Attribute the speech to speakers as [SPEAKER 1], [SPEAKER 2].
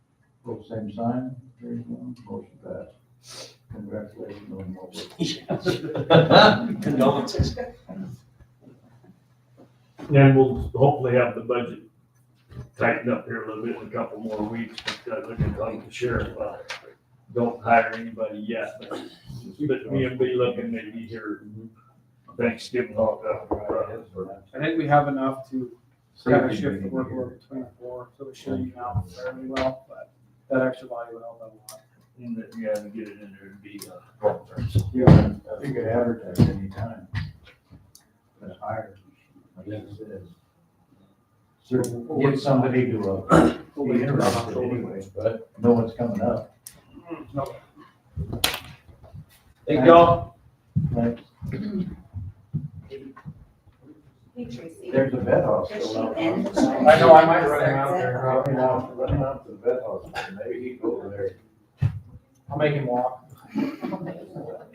[SPEAKER 1] Both same sign, hearing none, motion passed. Congratulations on what we
[SPEAKER 2] Condolences.
[SPEAKER 3] And we'll hopefully have the budget tightened up here a little bit in a couple more weeks, because I can talk to the sheriff about it. Don't hire anybody yet, but, but me and be looking maybe here Thanksgiving, uh, all that.
[SPEAKER 4] I think we have enough to kind of
[SPEAKER 1] Safety
[SPEAKER 4] shift the
[SPEAKER 1] meeting here.
[SPEAKER 4] workload between the four, so we should even out fairly well, but that extra value would help out
[SPEAKER 3] And that, yeah, and get it in there and be, uh, long term.
[SPEAKER 1] Yeah, I think it advertised anytime. But higher, I guess it is. So we'll get somebody to, uh,
[SPEAKER 4] a
[SPEAKER 1] be
[SPEAKER 4] lot.
[SPEAKER 1] interested anyway, but no one's coming up.
[SPEAKER 4] No,
[SPEAKER 2] Thank y'all.
[SPEAKER 1] Like,
[SPEAKER 5] Hey Tracy.
[SPEAKER 1] There's a vet house
[SPEAKER 5] Does she
[SPEAKER 1] still out.
[SPEAKER 5] end?
[SPEAKER 1] there.
[SPEAKER 4] I know, I might run him out there.
[SPEAKER 1] Running out, running out to the vet house, maybe he go over there.
[SPEAKER 4] I'll make him walk.
[SPEAKER 5] Okay.